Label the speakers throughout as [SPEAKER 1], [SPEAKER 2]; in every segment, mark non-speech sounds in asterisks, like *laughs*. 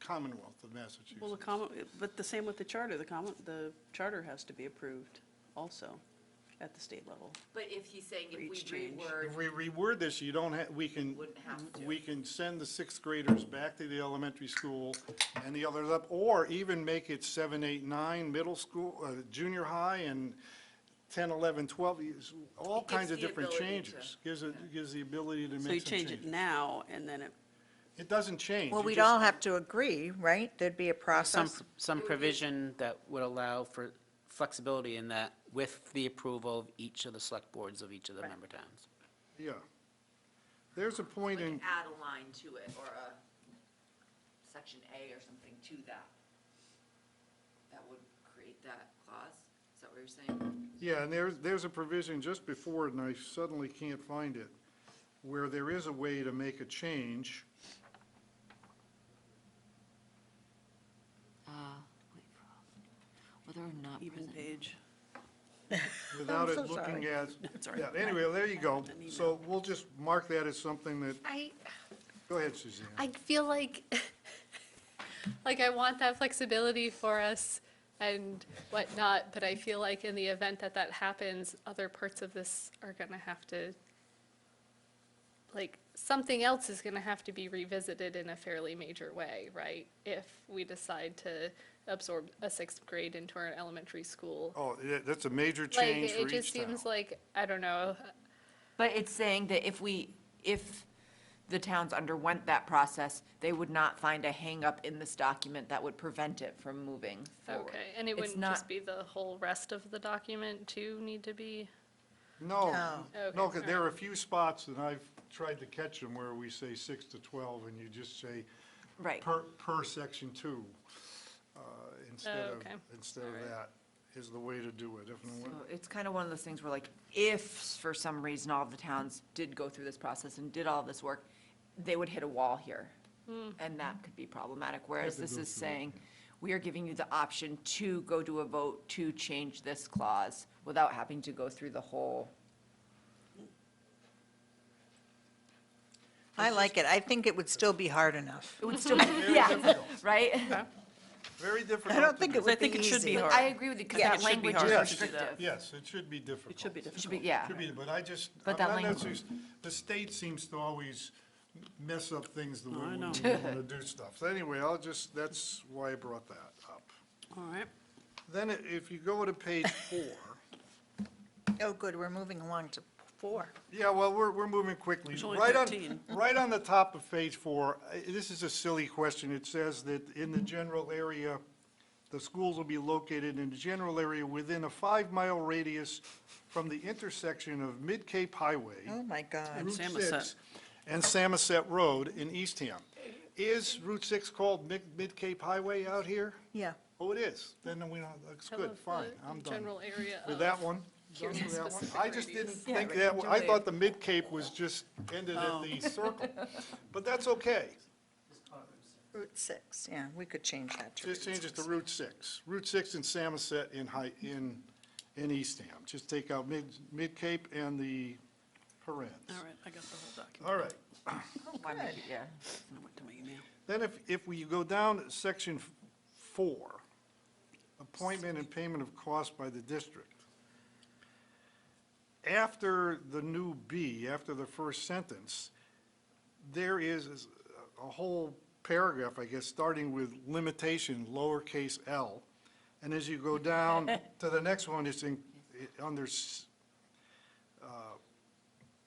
[SPEAKER 1] Commonwealth of
[SPEAKER 2] Well, the
[SPEAKER 1] Massachusetts.
[SPEAKER 2] common, but the same with the charter, the common, the charter has to be approved also at the state level.
[SPEAKER 3] But if he's saying if
[SPEAKER 2] For
[SPEAKER 3] we
[SPEAKER 2] each change.
[SPEAKER 3] reword,
[SPEAKER 1] If we reword this, you don't have, we can,
[SPEAKER 3] Wouldn't have to.
[SPEAKER 1] we can send the sixth graders back to the elementary school and the others up, or even make it seven, eight, nine, middle school, uh, junior high, and 10, 11, 12, is- all
[SPEAKER 3] It gives
[SPEAKER 1] kinds of
[SPEAKER 3] the
[SPEAKER 1] different
[SPEAKER 3] ability to-
[SPEAKER 1] changes. Gives it, gives the ability to make
[SPEAKER 2] So you
[SPEAKER 1] some
[SPEAKER 2] change it
[SPEAKER 1] changes.
[SPEAKER 2] now, and then it,
[SPEAKER 1] It doesn't change.
[SPEAKER 4] Well,
[SPEAKER 1] You
[SPEAKER 4] we'd
[SPEAKER 1] just-
[SPEAKER 4] all have to agree, right? There'd be a
[SPEAKER 5] Some,
[SPEAKER 4] process.
[SPEAKER 5] some provision that would allow for flexibility in that with the approval of each of the select boards of each of the member towns.
[SPEAKER 1] Yeah. There's a
[SPEAKER 3] like
[SPEAKER 1] point in,
[SPEAKER 3] add a line to it or a section A or something to that, that would create that clause? Is that what you're saying?
[SPEAKER 1] yeah, and there's, there's a provision just before, it, and I suddenly can't find it, where there is a way to make a change.
[SPEAKER 6] Whether or not
[SPEAKER 2] even
[SPEAKER 6] present.
[SPEAKER 2] page.
[SPEAKER 1] without
[SPEAKER 4] I'm
[SPEAKER 1] it
[SPEAKER 4] so
[SPEAKER 1] looking
[SPEAKER 4] sorry.
[SPEAKER 1] at,
[SPEAKER 2] It's all
[SPEAKER 1] yeah,
[SPEAKER 2] right.
[SPEAKER 1] anyway, there you go.
[SPEAKER 2] An email.
[SPEAKER 1] So we'll just mark that as something that,
[SPEAKER 7] I,
[SPEAKER 1] go ahead, Suzanne.
[SPEAKER 7] I feel like, *laughs* like I want that flexibility for us and whatnot, but I feel like in the event that that happens, other parts of this are gonna have to, like, something else is gonna have to be revisited in a fairly major way, right? If we decide to absorb a sixth grade into our elementary school.
[SPEAKER 1] Oh, yeah, that's a major
[SPEAKER 7] Like,
[SPEAKER 1] change
[SPEAKER 7] it
[SPEAKER 1] for
[SPEAKER 7] just
[SPEAKER 1] each town.
[SPEAKER 7] seems like, I don't know,
[SPEAKER 3] But it's saying that if we, if the towns underwent that process, they would not find a hangup in this document that would prevent it from moving forward.
[SPEAKER 7] Okay, and it
[SPEAKER 3] It's
[SPEAKER 7] wouldn't
[SPEAKER 3] not-
[SPEAKER 7] just be the whole rest of the document too need to be?
[SPEAKER 1] No,
[SPEAKER 4] No.
[SPEAKER 1] no,
[SPEAKER 7] Okay,
[SPEAKER 1] because there are a few spots, and I've tried to catch them, where we say six to 12, and you just say
[SPEAKER 3] Right.
[SPEAKER 1] per, per section two, uh, instead
[SPEAKER 7] Oh,
[SPEAKER 1] of,
[SPEAKER 7] okay.
[SPEAKER 1] instead of that, is the way to do it. If no
[SPEAKER 3] So
[SPEAKER 1] one-
[SPEAKER 3] It's kind of one of those things where like, if for some reason all of the towns did go through this process and did all this work, they would hit a wall here. And that could be problematic, whereas
[SPEAKER 1] to
[SPEAKER 3] this
[SPEAKER 1] go
[SPEAKER 3] is
[SPEAKER 1] through it,
[SPEAKER 3] saying, we are giving you the option to go to a vote to change this clause without having to go through the whole.
[SPEAKER 4] I like it. I think it would still be hard enough.
[SPEAKER 3] It would still, *laughs* yeah, right?
[SPEAKER 1] Very difficult.
[SPEAKER 4] I don't
[SPEAKER 1] to
[SPEAKER 4] think
[SPEAKER 1] do.
[SPEAKER 4] it would
[SPEAKER 2] think
[SPEAKER 4] be
[SPEAKER 2] it should be
[SPEAKER 4] easy.
[SPEAKER 2] hard.
[SPEAKER 3] I agree with you, because
[SPEAKER 2] Yeah, it
[SPEAKER 3] that
[SPEAKER 2] should be
[SPEAKER 3] language
[SPEAKER 2] hard.
[SPEAKER 3] is
[SPEAKER 1] Yes.
[SPEAKER 3] restrictive.
[SPEAKER 1] Yes, it should be difficult.
[SPEAKER 2] It should be
[SPEAKER 3] It should be,
[SPEAKER 2] difficult.
[SPEAKER 3] yeah.
[SPEAKER 1] Should be, but I just, I'm
[SPEAKER 3] But that
[SPEAKER 1] not
[SPEAKER 3] language-
[SPEAKER 1] necessarily, the state seems to always mess up things the way
[SPEAKER 2] I
[SPEAKER 1] we
[SPEAKER 2] know.
[SPEAKER 1] want to do stuff. So anyway, I'll just, that's why I brought that up.
[SPEAKER 2] All right.
[SPEAKER 1] Then i- if you go to page four,
[SPEAKER 4] Oh, good, we're moving along to four.
[SPEAKER 1] yeah, well, we're, we're moving quickly.
[SPEAKER 2] There's only
[SPEAKER 1] Right on-
[SPEAKER 2] 13.
[SPEAKER 1] *laughs* Right on the top of page four, I- this is a silly question. It says that in the general area, the schools will be located in the general area within a five-mile radius from the intersection of Mid-Cape Highway.
[SPEAKER 4] Oh, my God.
[SPEAKER 1] Route
[SPEAKER 2] Samoset.
[SPEAKER 1] 6 and Samoset Road in Eastham. Is Route 6 called Mid- Mid-Cape Highway out here?
[SPEAKER 4] Yeah.
[SPEAKER 1] Oh, it is. Then we don't, that's
[SPEAKER 7] I
[SPEAKER 1] good,
[SPEAKER 7] love the
[SPEAKER 1] fine, I'm done.
[SPEAKER 7] General area
[SPEAKER 1] With
[SPEAKER 7] of-
[SPEAKER 1] that one? Done
[SPEAKER 7] Here's
[SPEAKER 1] with that one?
[SPEAKER 7] specific
[SPEAKER 1] I just didn't
[SPEAKER 7] radius.
[SPEAKER 1] think
[SPEAKER 3] right,
[SPEAKER 1] that,
[SPEAKER 3] don't
[SPEAKER 1] I
[SPEAKER 3] do
[SPEAKER 1] thought
[SPEAKER 3] it.
[SPEAKER 1] the Mid-Cape was just ended at the circle. But that's okay.
[SPEAKER 4] Route six, yeah, we could change that to.
[SPEAKER 1] Just
[SPEAKER 4] Route
[SPEAKER 1] change it to
[SPEAKER 4] six.
[SPEAKER 1] Route 6. Route 6 in Samoset in High, in, in Eastham. Just take out Mid, Mid-Cape and the parens.
[SPEAKER 2] All right, I got the whole document.
[SPEAKER 1] All right.
[SPEAKER 3] Why make it- Yeah.
[SPEAKER 2] I went to my email.
[SPEAKER 1] Then if, if we go down to section f- four, appointment and payment of cost by the district. After the new B, after the first sentence, there is is a whole paragraph, I guess, starting with limitation, lowercase l. And as you go down to the next one, it's in, it- under s- uh,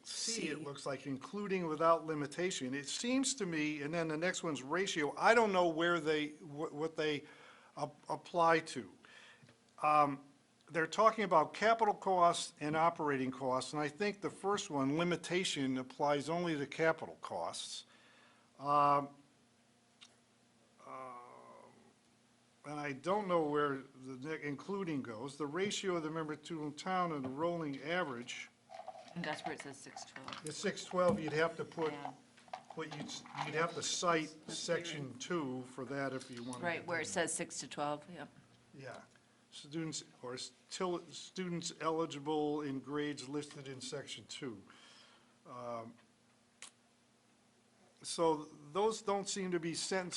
[SPEAKER 1] C, it looks like, including without limitation. It seems to me, and then the next one's ratio, I don't know where they, what what they ap- apply to. Um, They're talking about capital costs and operating costs, and I think the first one, limitation, applies only to capital costs. Um, uh, And I don't know where the ne- including goes. The ratio of the member to town and the rolling average.
[SPEAKER 3] And that's where it says six twelve.
[SPEAKER 1] The six twelve, you'd have to put,
[SPEAKER 3] Yeah.
[SPEAKER 1] what you'd, s- you'd have to cite section two for that if you wanted. to
[SPEAKER 3] Right, where
[SPEAKER 1] do
[SPEAKER 3] it says six to twelve, yeah.
[SPEAKER 1] that. Yeah, students, or s- till, students eligible in grades listed in section two. Um, So those don't seem to be sentences